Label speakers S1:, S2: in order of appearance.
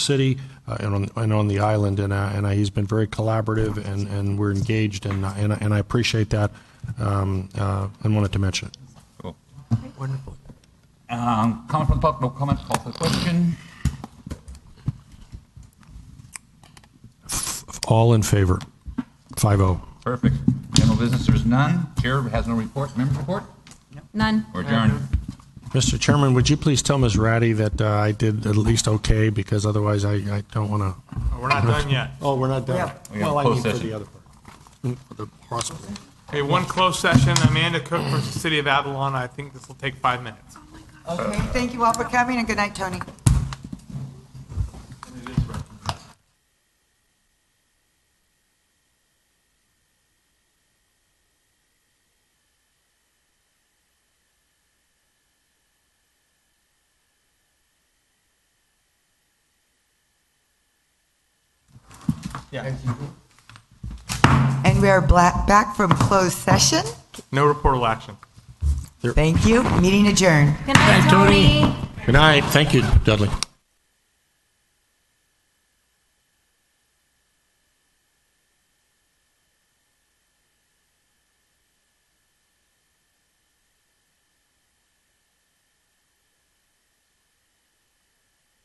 S1: city uh, and on, and on the island, and, uh, and uh, he's been very collaborative, and, and we're engaged, and, I- and I- and I appreciate that, um, uh, and wanted to mention it.
S2: Wonderful.
S3: Um, Comment from the public, no comment, call for the question.
S1: All in favor? Five oh.
S3: Perfect. General business, there's none. Chair has no report. Members report?
S4: None.
S3: Or adjourned?
S1: Uh-huh. Mr. Chairman, would you please tell Ms. Ratty that uh, I did at least okay, because otherwise I, I don't want to.
S5: We're not done yet.
S1: Oh, we're not
S2: Yeah.
S1: done.
S3: We have
S1: Well, I mean
S3: closed
S1: for
S3: session.
S1: the other part. Mm, for the hospital.
S5: Okay, one closed session, Amanda Cook versus City of Avalon. I think this will take five minutes.
S2: Okay, thank you all for coming, and good night, Tony. And we are bla- back from closed session.
S5: No reportable action.
S2: Thank you. Meeting adjourned.
S4: Good night, Tony.
S1: Good night. Thank you, Dudley.